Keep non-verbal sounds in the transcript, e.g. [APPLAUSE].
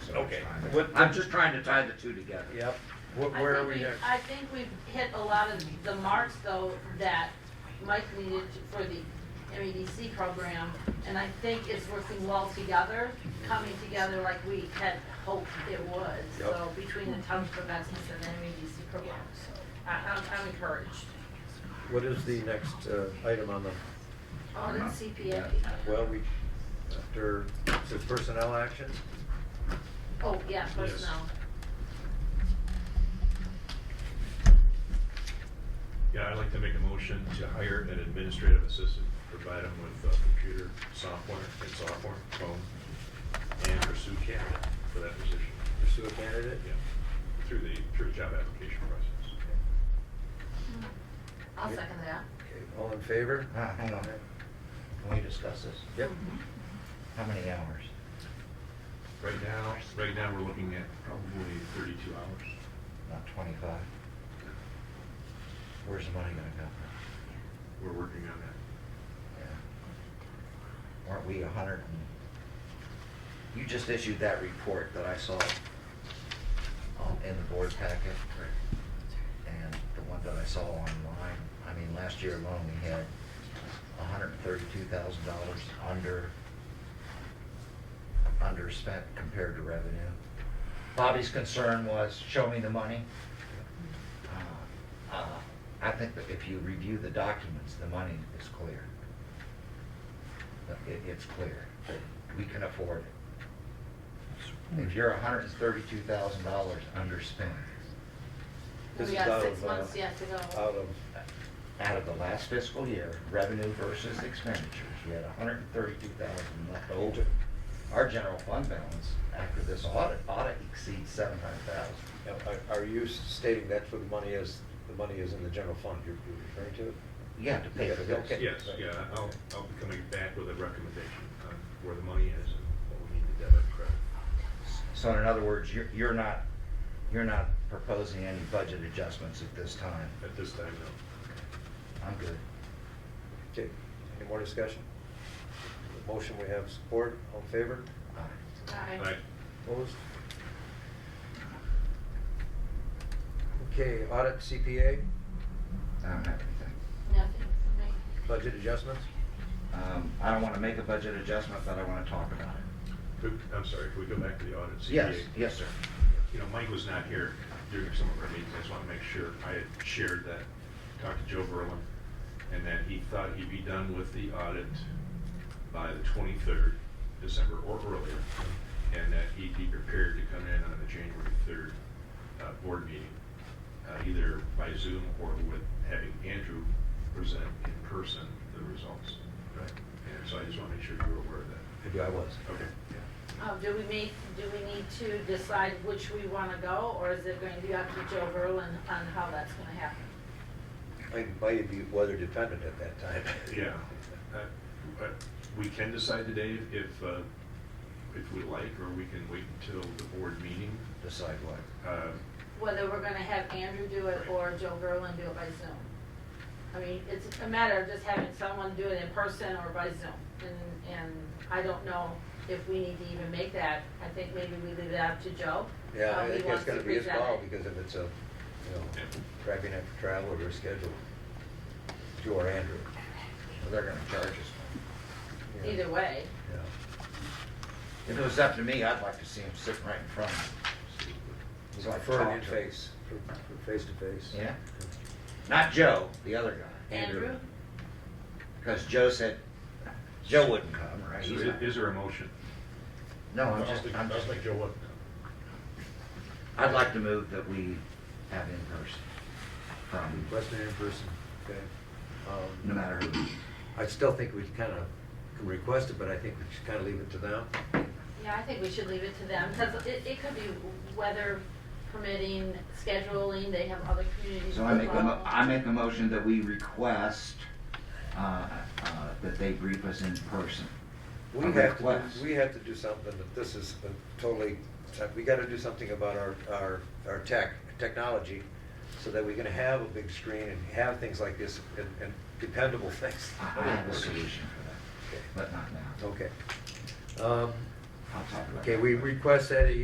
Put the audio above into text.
Okay. What- I'm just trying to tie the two together. Yep, what, I where are we think we- at? I think we've hit a lot of the marks though that Mike needed to- for the MEDC program. And I think it's working well together, coming together like we had hoped it would. Yep. So between the Towns for Business and the E MEDC program, so I, I'm, I'm encouraged. What is the next uh, item on the, On the CPA. well, we, after, says personnel action? Oh, yeah, personnel. Yeah, I'd like to make a motion to hire an administrative assistant, provide them with uh, computer software and software, phone, and pursue candidate for that position. Pursue a candidate? Yeah, through the, through the job application process. I'll second that. Okay, all in favor? Ah, hang on, can we discuss this? Yep, Mm-hmm. How many hours? Right now, right now, we're looking at probably thirty-two hours. About twenty-five? Where's the money gonna go from? We're working on that. Yeah. Weren't we a hundred and, you just issued that report that I saw um, in the board packet, and the one that I saw online, I mean, last year alone, we had hundred and thirty-two thousand dollars under, underspent compared to revenue. Bobby's concern was, show me the money. Uh, uh, I think that if you review the documents, the money is clear. Uh, It, it's clear, that we can afford it. If you're hundred and thirty-two thousand dollars underspent This We is out got six of, uh, months yet to out go. of, uh, out of the last fiscal year, revenue versus expenditures, we had hundred and thirty-two thousand left over. Our general fund balance after this audit, audit exceeds seven hundred thousand. now, are- are you stating that's where the money is, the money is in the general fund you're you're referring to? You have to pay for Okay. this. Yes, yeah, I'll, I'll be coming back with a recommendation on where the money is and what we need to debit and credit. So in other words, you're, you're not, you're not proposing any budget adjustments at this time. At this time, no. I'm good. Okay, any more discussion? The Motion we have support, all in favor? Aye. Aye. All right, Opposed? Okay, audit CPA, I don't have anything. Nothing for me. budget adjustments? Um, I don't want to make a budget adjustment, but I want to talk about it. Could- I'm sorry, can we go back to the audit? CPA? Yes, yes, sir. You know, Mike was not here during some of our meetings, I just want to make sure, I had shared that, talked to Joe Berlin, and that he thought he'd be done with the audit by the 23rd, December or earlier, and that he'd be prepared to come in on the January 3rd uh, board meeting, uh, either by Zoom or with having Andrew present in person the results. Right. And so I just want to make sure you were aware of that. Maybe I was. Okay. Um, do we make, do we need to decide which we wanna go, or is it going to be up to Joe Verlin on how that's gonna happen? I might be weather dependent at that time. [LAUGHS] Yeah, Uh, but we can decide today if- if, uh, if we like, or we can wait until the board meeting. Decide what. Uh, Whether we're gonna have Andrew do it or Joe Verlin do it by Zoom? I mean, it's a matter of just having someone do it in person or by Zoom, and, and I don't know if we need to even make that. I think maybe we leave it up to Joe. Yeah, how I he think that's wants to gonna be his present call, it. because if it's a, you know, Yeah. tracking after travel or schedule, Joe or Andrew. They're going to charge us. Yeah. Either way, Yeah. If it was up to me, I'd like to see him sitting right in front of me. So I For an talked to him. in-face, for for face-to-face. Yeah. Not Joe, the other guy. Andrew, Because Joe said, Joe wouldn't come, right? So He's is not- is there a motion? No, I'm I'll just, stick- I'm I'll just, stick Joe up. I'd like to move that we have in person from, Western in-person, okay. Um, no matter who. I still think we kind of can request it, but I think we should kind of leave it to them. Yeah, I think we should leave it to them, because it, it could be weather permitting, scheduling, they have other communities. So I make a, mo- involved. I make a motion that we request, uh, uh, that they brief us in person. We A have to, request. we have to do something, that this is a totally, we gotta do something about our, our, our tech, technology, so that we can have a big screen and have things like this and, and dependable things. I I have a solution for that, but not now. Okay. Um, I'll talk about it. Okay, we request that he